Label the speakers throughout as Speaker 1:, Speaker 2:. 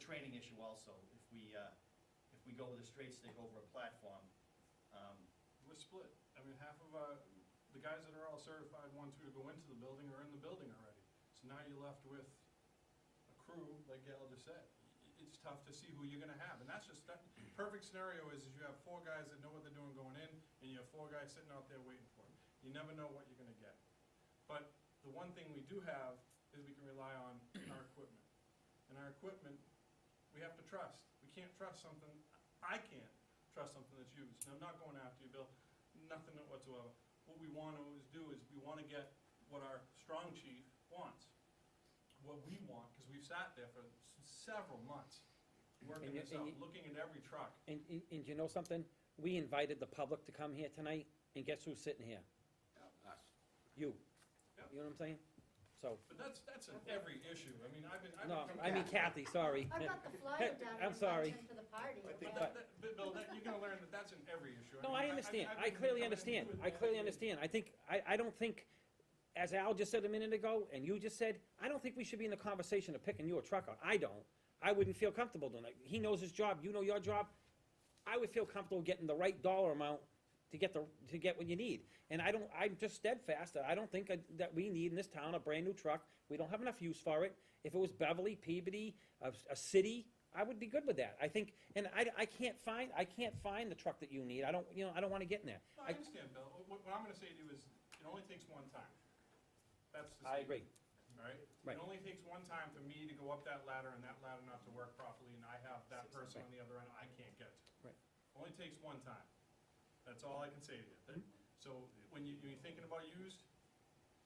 Speaker 1: training issue also. If we, uh, if we go with a straight stick over a platform, um,
Speaker 2: We're split. I mean, half of our, the guys that are all certified ones who to go into the building are in the building already. So now you're left with a crew, like Gail just said. I- It's tough to see who you're gonna have, and that's just, that, perfect scenario is, is you have four guys that know what they're doing going in, and you have four guys sitting out there waiting for them. You never know what you're gonna get. But the one thing we do have is we can rely on our equipment. And our equipment, we have to trust. We can't trust something, I can't trust something that's used. And I'm not going after you, Bill, nothing whatsoever. What we want to is do is we want to get what our strong chief wants, what we want, because we've sat there for s- several months, working
Speaker 3: And you-
Speaker 2: this
Speaker 3: and
Speaker 2: out,
Speaker 3: you-
Speaker 2: looking at every truck.
Speaker 3: And, and- and you know something? We invited the public to come here tonight, and guess who's sitting here?
Speaker 4: Us.
Speaker 3: You.
Speaker 2: Yeah.
Speaker 3: You know what I'm saying? So,
Speaker 2: But that's, that's in every issue. I mean, I've been, I've been.
Speaker 3: no,
Speaker 2: coming
Speaker 3: I mean
Speaker 2: back-
Speaker 3: Kathy, sorry.
Speaker 5: I've got the flyer down in
Speaker 3: I'm sorry.
Speaker 5: Lexington for the party.
Speaker 4: I think
Speaker 2: But that, that, but Bill, that, you're gonna learn that that's in every issue. I
Speaker 3: No,
Speaker 2: mean,
Speaker 3: I
Speaker 2: I've
Speaker 3: understand.
Speaker 2: been
Speaker 3: I
Speaker 2: coming
Speaker 3: clearly understand.
Speaker 2: into it
Speaker 3: I clearly
Speaker 2: like-
Speaker 3: understand. I think, I, I don't think, as Al just said a minute ago, and you just said, I don't think we should be in the conversation of picking you a truck out. I don't. I wouldn't feel comfortable doing it. He knows his job, you know your job. I would feel comfortable getting the right dollar amount to get the, to get what you need. And I don't, I'm just steadfast that I don't think that we need in this town a brand-new truck. We don't have enough use for it. If it was Beverly, Peabody, a, a city, I would be good with that. I think, and I, I can't find, I can't find the truck that you need. I don't, you know, I don't wanna get in there.
Speaker 2: No, I understand, Bill. What, what I'm gonna say to you is, it only takes one time. That's the.
Speaker 3: I agree.
Speaker 2: All right?
Speaker 3: Right.
Speaker 2: It only takes one time for me to go up that ladder and that ladder not to work properly, and I have that person on the other end I can't get to.
Speaker 3: Right. Mm-hmm.
Speaker 2: Only takes one time. That's all I can say to you. That- So when you, you're thinking about used,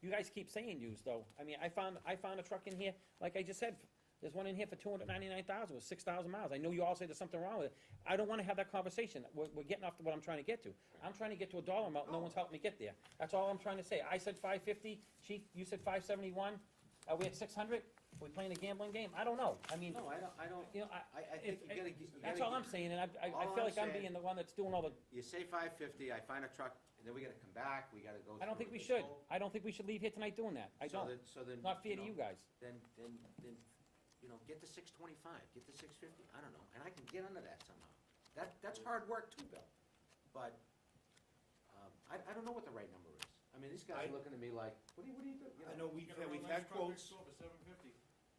Speaker 3: You guys keep saying used though. I mean, I found, I found a truck in here, like I just said, there's one in here for two hundred ninety-nine thousand with six thousand miles. I know you all say there's something wrong with it. I don't wanna have that conversation. We're, we're getting off to what I'm trying to get to. I'm trying to get to a dollar amount, no one's helping me get there. That's all I'm trying to say. I said five fifty, chief, you said five seventy-one. Are we at six hundred? Are we playing a gambling game? I don't know. I mean,
Speaker 4: No, I don't, I don't,
Speaker 3: you know, I.
Speaker 4: I, I
Speaker 3: if-
Speaker 4: think you gotta.
Speaker 3: if-
Speaker 4: get- you
Speaker 3: That's
Speaker 4: gotta
Speaker 3: all I'm
Speaker 4: get-
Speaker 3: saying, and I, I, I
Speaker 4: All
Speaker 3: feel
Speaker 4: I'm
Speaker 3: like I'm
Speaker 4: saying-
Speaker 3: being the one that's doing all the,
Speaker 4: You say five fifty, I find a truck, and then we gotta come back, we gotta go.
Speaker 3: I don't think
Speaker 4: through
Speaker 3: we
Speaker 4: this
Speaker 3: should.
Speaker 4: whole-
Speaker 3: I don't think we should leave here tonight doing that. I
Speaker 4: So
Speaker 3: don't.
Speaker 4: then- So then.
Speaker 3: Not fair to you
Speaker 4: know,
Speaker 3: guys.
Speaker 4: Then, then, then, you know, get to six twenty-five, get to six fifty, I don't know, and I can get under that somehow. That, that's hard work too, Bill, but, um, I, I don't know what the right number is. I mean, these guys
Speaker 6: I-
Speaker 4: are looking at me like, what do you, what do you do? You
Speaker 6: I know
Speaker 2: you
Speaker 6: we've
Speaker 2: get a
Speaker 6: had, we've
Speaker 2: real
Speaker 6: had
Speaker 2: nice truck, we
Speaker 6: quotes,
Speaker 2: sold for seven fifty.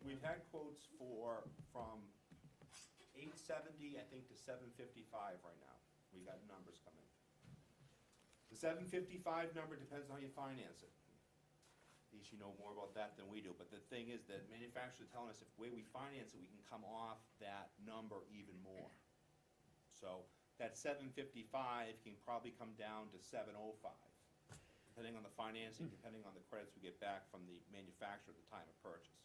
Speaker 6: we've had quotes for, from eight seventy, I think, to seven fifty-five right now. We got numbers coming. The seven fifty-five number depends on how you finance it. At least you know more about that than we do, but the thing is that manufacturers are telling us if the way we finance it, we can come off that number even more. So that seven fifty-five can probably come down to seven oh five, depending on the financing, depending on the credits we get back from the manufacturer at the time of purchase.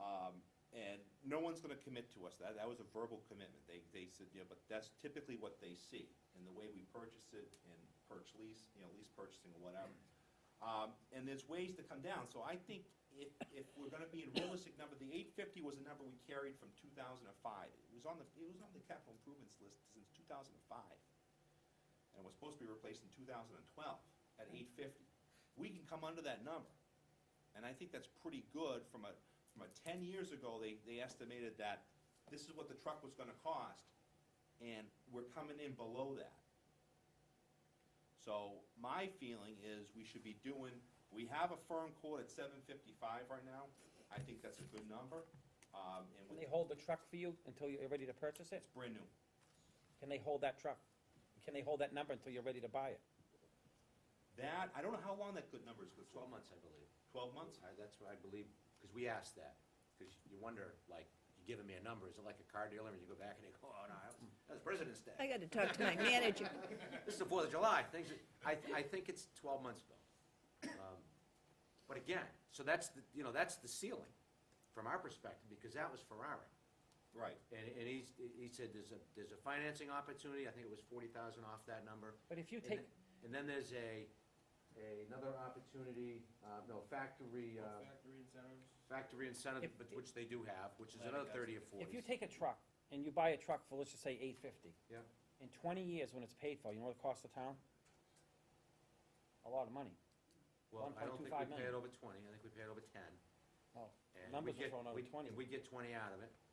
Speaker 6: Um, and no one's gonna commit to us, that, that was a verbal commitment, they, they said, you know, but that's typically what they see, and the way we purchase it, and purchase lease, you know, lease purchasing or whatever. Um, and there's ways to come down, so I think if, if we're gonna be in realistic number, the eight fifty was a number we carried from two thousand and five. It was on the, it was on the capital improvements list since two thousand and five. And it was supposed to be replaced in two thousand and twelve at eight fifty. We can come under that number. And I think that's pretty good from a, from a ten years ago, they, they estimated that this is what the truck was gonna cost, and we're coming in below that. So my feeling is we should be doing, we have a firm quote at seven fifty-five right now. I think that's a good number, um, and
Speaker 3: Can
Speaker 6: with,
Speaker 3: they hold the truck for you until you're ready to purchase
Speaker 6: it's
Speaker 3: it?
Speaker 6: brand new.
Speaker 3: Can they hold that truck? Can they hold that number until you're ready to buy it?
Speaker 6: That, I don't know how long that good number is, good,
Speaker 4: Twelve months, I believe.
Speaker 6: Twelve months?
Speaker 4: I- That's what I believe, because we asked that, because you wonder, like, you give them your number, is it like a car dealer, and you go back and they go, oh, no, that was, that was President's
Speaker 7: I
Speaker 4: Day.
Speaker 7: got to talk to my manager.
Speaker 4: This is the Fourth of July, things, are- I, I think it's twelve months, Bill. Um, But again, so that's, the you know, that's the ceiling, from our perspective, because that was Ferrari.
Speaker 6: Right.
Speaker 4: And, and he's, he said there's a, there's a financing opportunity, I think it was forty thousand off that number.
Speaker 3: But if you
Speaker 4: And
Speaker 3: take-
Speaker 4: then- And then there's a, another opportunity, uh, no, factory, uh,
Speaker 2: Factory incentives.
Speaker 4: factory incentive,
Speaker 3: If-
Speaker 4: but which they do have, which is
Speaker 2: Glad I
Speaker 4: another
Speaker 2: got
Speaker 4: thirty
Speaker 2: you.
Speaker 4: or forty.
Speaker 3: If you take a truck and you buy a truck for, let's just say, eight fifty,
Speaker 4: Yeah,
Speaker 3: in twenty years when it's paid for, you know what it costs the town? A lot of money.
Speaker 4: well, I don't
Speaker 3: 1.25
Speaker 4: think we pay it
Speaker 3: million.
Speaker 4: over twenty, I think we pay it over ten.
Speaker 3: Oh,
Speaker 4: and we
Speaker 3: numbers are
Speaker 4: get-
Speaker 3: thrown out
Speaker 4: we-
Speaker 3: at twenty.
Speaker 4: And we get twenty out of it,